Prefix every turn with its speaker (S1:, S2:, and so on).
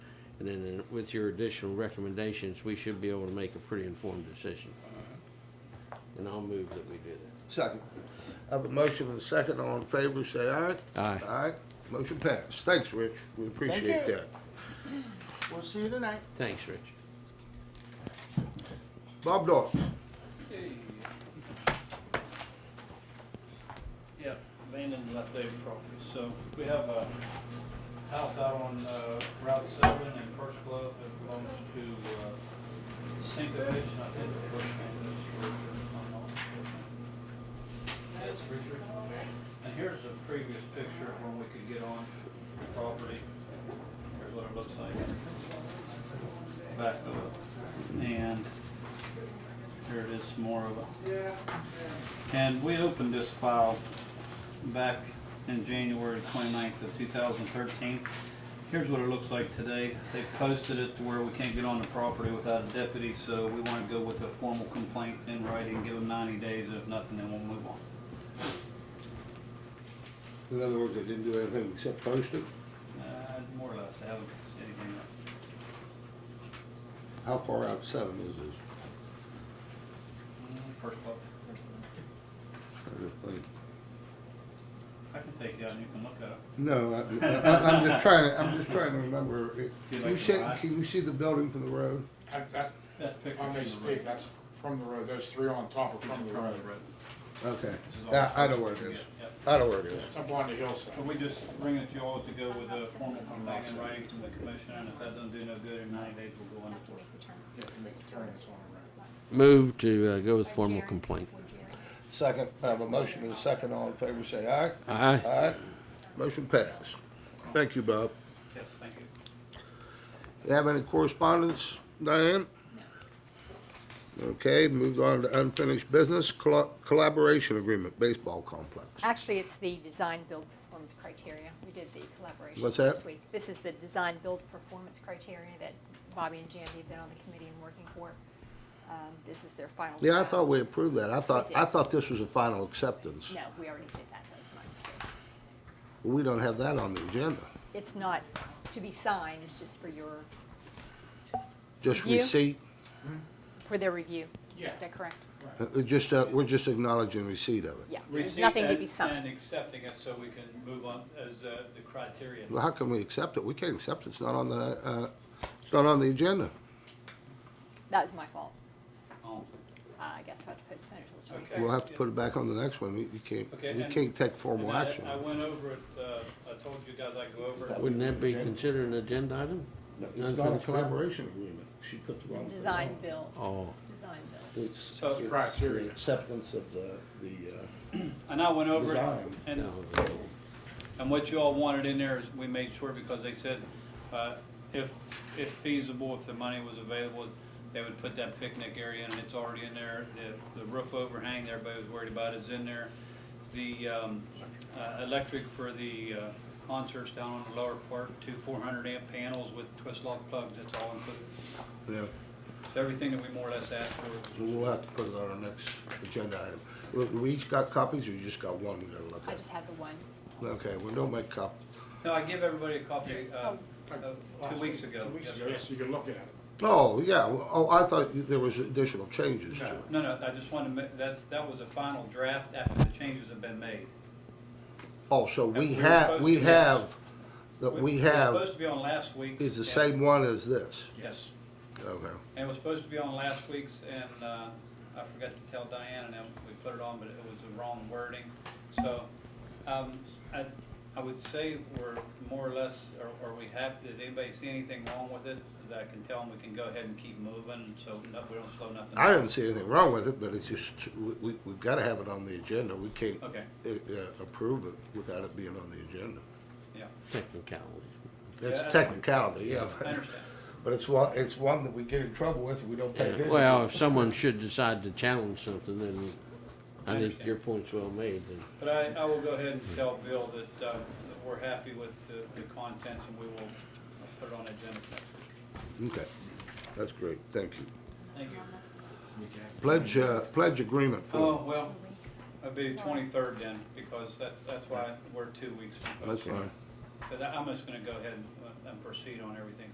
S1: And then uh, with your additional recommendations, we should be able to make a pretty informed decision. And I'll move that we do that.
S2: Second. I have a motion and a second. All in favor, say aye.
S1: Aye.
S2: Aye. Motion passed. Thanks, Rich. We appreciate
S3: Thank you.
S2: that.
S3: We'll see you tonight.
S1: Thanks, Rich.
S2: Bob Dawson.
S4: Yep, abandoned leftover property. So we have a house out on uh, Route seven in First Glove that belongs to uh, Cinco H, and I think the first name is Richard. if I'm not mistaken. Yeah, It's Richard. And here's the previous picture of when we could get on the property. Here's what it looks like. Back of it. And here it is, some more of it. And we opened this file back in January 29th of 2013. Here's what it looks like today. They posted it to where we can't get on the property without a deputy, so we want to go with a formal complaint in writing, give them 90 days. If nothing, then we'll move on.
S2: In other words, they didn't do anything except post it.
S4: Uh, More or less, they haven't fixed anything up.
S2: How far out seven is this?
S4: First look.
S2: Trying to think.
S4: I can take you out and you can look at it.
S2: No, I, I, I'm just trying, to- I'm just trying to remember. It-
S4: You
S2: Can
S4: like
S2: you
S4: the
S2: see,
S4: rise?
S2: can you see the building from the road?
S5: That, that,
S4: That's
S5: if
S4: picture.
S5: I may
S4: from the road.
S5: speak, that's from the road, those three on top are from the road.
S2: Okay.
S4: This is all
S2: I, I know
S4: the
S2: where it
S4: pictures
S2: is.
S4: you get, yep.
S2: I know where it is.
S5: It's up on the hillside.
S4: Can we just bring it to y'all to go with a formal complaint in writing from the commission, and if that doesn't do no good, in ninety days, we'll go under court.
S5: You have to make a turn, it's on the road.
S1: Move to uh, go with formal complaint.
S2: Second, I have a motion and a second. All in favor, say aye.
S1: Aye.
S2: Aye. Motion passed. Thank you, Bob.
S4: Yes, thank you.
S2: You have any correspondence, Diane? No. Okay, moved on to unfinished business, colla- collaboration agreement, baseball complex.
S6: Actually, it's the design build performance criteria. We did the collaboration
S2: What's
S6: this
S2: that?
S6: week. This is the design build performance criteria that Bobby and Jamie have been on the committee and working for. Um, This is their final.
S2: Yeah, I
S6: draft.
S2: thought we approved that. I thought,
S6: We
S2: I
S6: did.
S2: thought this was a final acceptance.
S6: No, we already did that. That was my mistake.
S2: We don't have that on the agenda.
S6: It's not to be signed, it's just for your,
S2: Just
S6: Review?
S2: receipt,
S6: for their review.
S5: Yeah.
S6: Is that correct?
S2: uh, uh, just, uh, we're just acknowledging receipt of it.
S6: Yeah. There's nothing to be
S4: Receipt and-
S6: signed.
S4: And accepting it so we can move on as uh, the criteria.
S2: Well, how can we accept it? We can't accept it. It's not on the, uh, it's not on the agenda.
S6: That was my fault.
S4: Oh,
S6: Uh, I guess I'll have to postpone it till the
S4: Okay.
S6: 23rd.
S2: We'll have to put it back on the next one. You you can't,
S4: Okay,
S2: you
S4: and-
S2: can't take
S4: and
S2: formal
S4: I-
S2: action.
S4: I went over it, uh, I told you guys I'd go over it.
S1: Wouldn't that be considered an agenda item?
S2: No, It's
S1: Unfinished
S2: not a
S1: business?
S2: collaboration agreement. She put the wrong thing
S6: Design
S2: on.
S6: build.
S1: Oh.
S6: It's design build.
S2: It's,
S4: So-
S2: it's
S5: Criteria.
S2: the acceptance of the, the, uh,
S4: And I went over it,
S2: Design.
S4: and
S1: No.
S4: And what you all wanted in there is, we made sure, because they said, uh, if, if feasible, if the money was available, they would put that picnic area in, and it's already in there. The, the roof overhang that everybody was worried about is in there. The, um, uh, electric for the, uh, concerts down on the lower part, two four hundred amp panels with twist lock plugs, that's all included.
S2: yeah.
S4: So everything that we more or less asked for.
S2: So We'll have to put it on our next agenda item. Look, we each got copies, or you just got one we gotta look
S6: I
S2: at?
S6: just had the one.
S2: Okay, well, don't make cop,
S4: No, I give everybody a copy, uh, uh,
S5: Last
S4: two weeks ago.
S5: Oh, Two weeks
S4: Yes,
S5: ago,
S4: sir.
S5: yes, you can look at it.
S2: oh, yeah, well, oh, I thought you- there was additional changes to it.
S4: No, no, I just wanted to, ma- that, that was a final draft after the changes have been made.
S2: Oh, so we
S4: we were
S2: have,
S4: supposed
S2: we
S4: to do this.
S2: have, that we
S4: It was
S2: have
S4: supposed to be on last week.
S2: is the same one as this,
S4: Yes,
S2: okay.
S4: and it was supposed to be on last week's, and uh, I forgot to tell Diane, and then we put it on, but it was the wrong wording. So um, I, I would say we're more or less, or- or we have, did anybody see anything wrong with it? That I can tell them we can go ahead and keep moving, so no- we don't slow nothing
S2: I
S4: down.
S2: didn't see anything wrong with it, but it's just, we, we, we gotta have it on the agenda, we can't
S4: Okay.
S2: uh, uh, approve it without it being on the agenda.
S4: Yeah,
S1: Technicality.
S4: Yeah, I-
S2: It's technicality, yeah.
S4: I understand.
S2: But it's one, it's one that we get in trouble with, we don't pay attention. to.
S1: Well, if someone should decide to challenge something, then I
S4: I
S1: think
S4: understand.
S1: your point's well made. then.
S4: But I, I will go ahead and tell Bill that uh, that we're happy with the the contents, and we will put it on agenda for next week.
S2: Okay, that's great, thank you.
S4: Thank you.
S2: Pledge, uh, pledge agreement
S4: Oh,
S2: form,
S4: well, it'd be the twenty-third then, because that's, that's why we're two weeks. from
S2: that's fine.
S4: But I- I'm just gonna go ahead and, uh, and proceed on everything